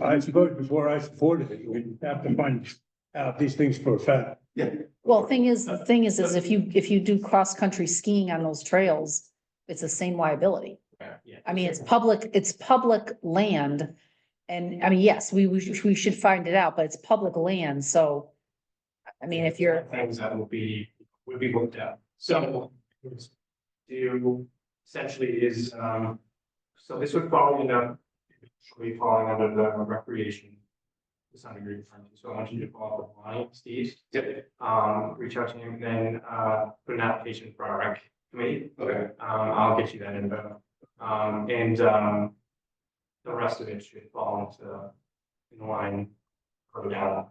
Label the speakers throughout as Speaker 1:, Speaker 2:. Speaker 1: I voted before I supported it. We have to find out these things for a fact.
Speaker 2: Yeah.
Speaker 3: Well, thing is, the thing is, is if you, if you do cross-country skiing on those trails, it's the same liability. I mean, it's public, it's public land. And I mean, yes, we, we should, we should find it out, but it's public land, so. I mean, if you're,
Speaker 4: Things that will be, would be looked at, so. Do, essentially is, um, so this would fall, you know, actually falling under the recreation. To some degree, so I want you to call up the line, Steve. Yep. Um, reach out to him, then, uh, put an application for our rec committee.
Speaker 2: Okay.
Speaker 4: Um, I'll get you that info, um, and, um. The rest of it should fall into, in line. Go down.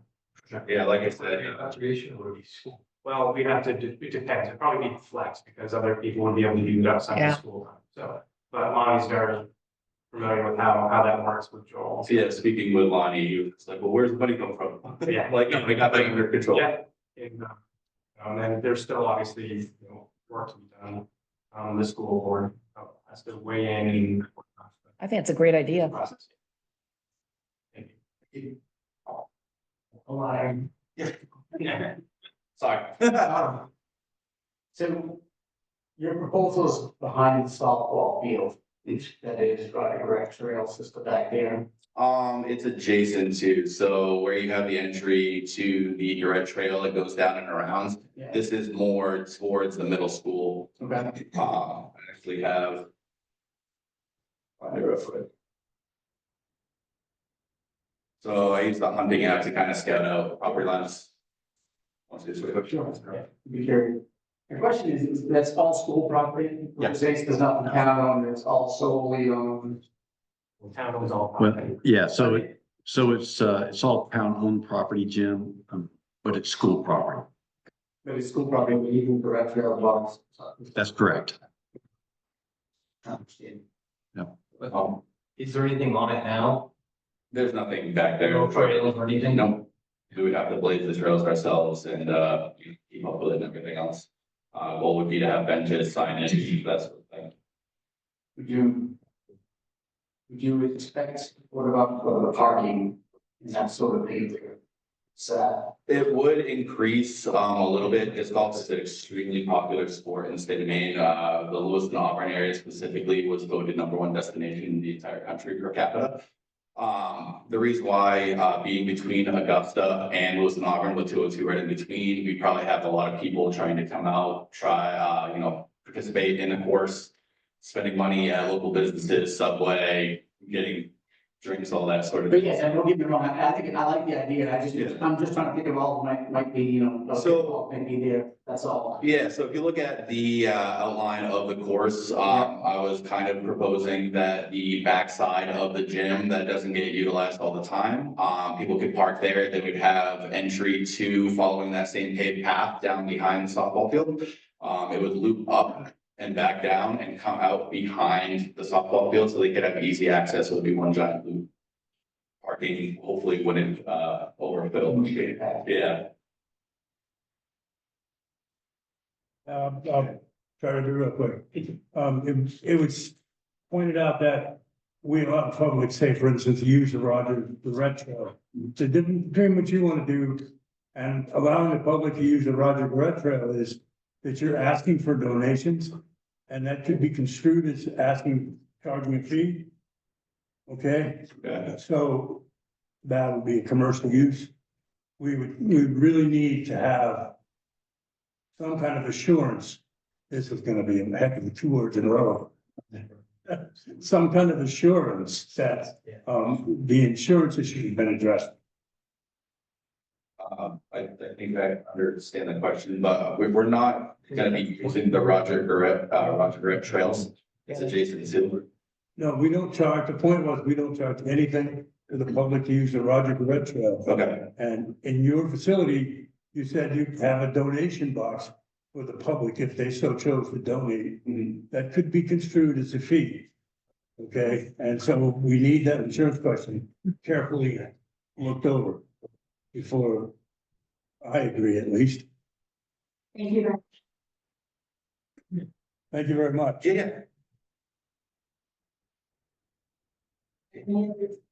Speaker 2: Yeah, like I said, uh,
Speaker 4: Conservation would be school. Well, we have to, de- it depends, it'd probably be flex because other people would be able to do it outside
Speaker 3: Yeah.
Speaker 4: of school time, so. But Lonnie's very familiar with how, how that works with Joel.
Speaker 2: So yeah, speaking with Lonnie, he was like, well, where's the money come from?
Speaker 4: Yeah.
Speaker 2: Like, no, we got that under control.
Speaker 4: Yeah. And, uh, um, and there's still obviously, you know, work to be done, um, the school board uh, has to weigh in and. whatnot, but
Speaker 3: I think it's a great idea.
Speaker 4: process. Thank you. Oh, Align. Yeah.
Speaker 2: Sorry.
Speaker 5: So your proposal is behind the softball field, that is running rec trail system back there.
Speaker 2: Um, it's adjacent to, so where you have the entry to the red trail that goes down and around.
Speaker 5: Yeah.
Speaker 2: This is more towards the middle school
Speaker 5: Okay.
Speaker 2: Uh, I actually have. find it real quick. So I use the hunting app to kind of scout out property lines. Once it's-
Speaker 5: Be curious. My question is, is that's all school property?
Speaker 2: Yeah.
Speaker 5: This does not count on, it's all solely on.
Speaker 4: Town owns all.
Speaker 6: Well,
Speaker 4: property.
Speaker 6: Yeah, so, it- so it's, uh, it's all town-owned property, Jim, um, but it's school property.
Speaker 5: But it's school property, but even the rec trail belongs.
Speaker 6: That's correct.
Speaker 5: Understand.
Speaker 2: Um,
Speaker 7: Is there anything on it now?
Speaker 2: there's nothing back there.
Speaker 7: No trails or anything?
Speaker 2: No, we would have to blaze the trails ourselves and, uh, keep up with it and everything else. Uh, goal would be to have benches, signage, that sort of thing.
Speaker 5: Would you? Would you expect, what about for the parking, is that sort of thing? So,
Speaker 2: It would increase um a little bit. Disc golf is an extremely popular sport in the state of Maine. Uh, the Lewiston Auburn area specifically was voted number one destination in the entire country per capita. Um, the reason why uh being between Augusta and Lewiston Auburn with two oh two right in between, we probably have a lot of people trying to come out, try, uh, you know, participate in the course. Spending money at local businesses, Subway, getting drinks, all that sort of.
Speaker 5: but
Speaker 2: thing.
Speaker 5: yes, I don't get me wrong, I, I think, I like the idea, I just,
Speaker 2: Yeah.
Speaker 5: I'm just trying to think of all, that might, might be, you know,
Speaker 2: So-
Speaker 5: okay, might be there, that's all.
Speaker 2: Yeah, so if you look at the uh, outline of the course, um, I was kind of proposing that the backside of the gym that doesn't get utilized all the time, um, people could park there, then we'd have entry to following that same paved path down behind the softball field. Um, It would loop up and back down and come out behind the softball field so they could have easy access. It would be one giant loop. Parking hopefully wouldn't uh, overfill. Yeah.
Speaker 1: Um, I'll try to do it real quick. Um, it, it was pointed out that we allow public, say, for instance, use the Roger, the red trail. The difference between what you want to do and allowing the public to use the Roger Red Trail is that you're asking for donations. And that could be construed as asking, charging a fee. Okay?
Speaker 2: Yeah.
Speaker 1: So that would be a commercial use. We would, we really need to have some kind of assurance, this is gonna be a heck of a two words in a row. Some kind of assurance that, um, the insurance issue has been addressed.
Speaker 2: Um, I, I think I understand the question, but uh, we, we're not gonna be using the Roger Garrett, uh, Roger Garrett trails. It's adjacent to,
Speaker 1: No, we don't charge, the point was, we don't charge anything to the public to use the Roger Red Trail.
Speaker 2: okay,
Speaker 1: And in your facility, you said you have a donation box for the public if they so chose to donate.
Speaker 2: Mhm.
Speaker 1: That could be construed as a fee. Okay, and so we need that insurance question carefully looked over before I agree at least.
Speaker 8: Thank you.
Speaker 1: Thank you very much.
Speaker 2: yeah,
Speaker 8: very much.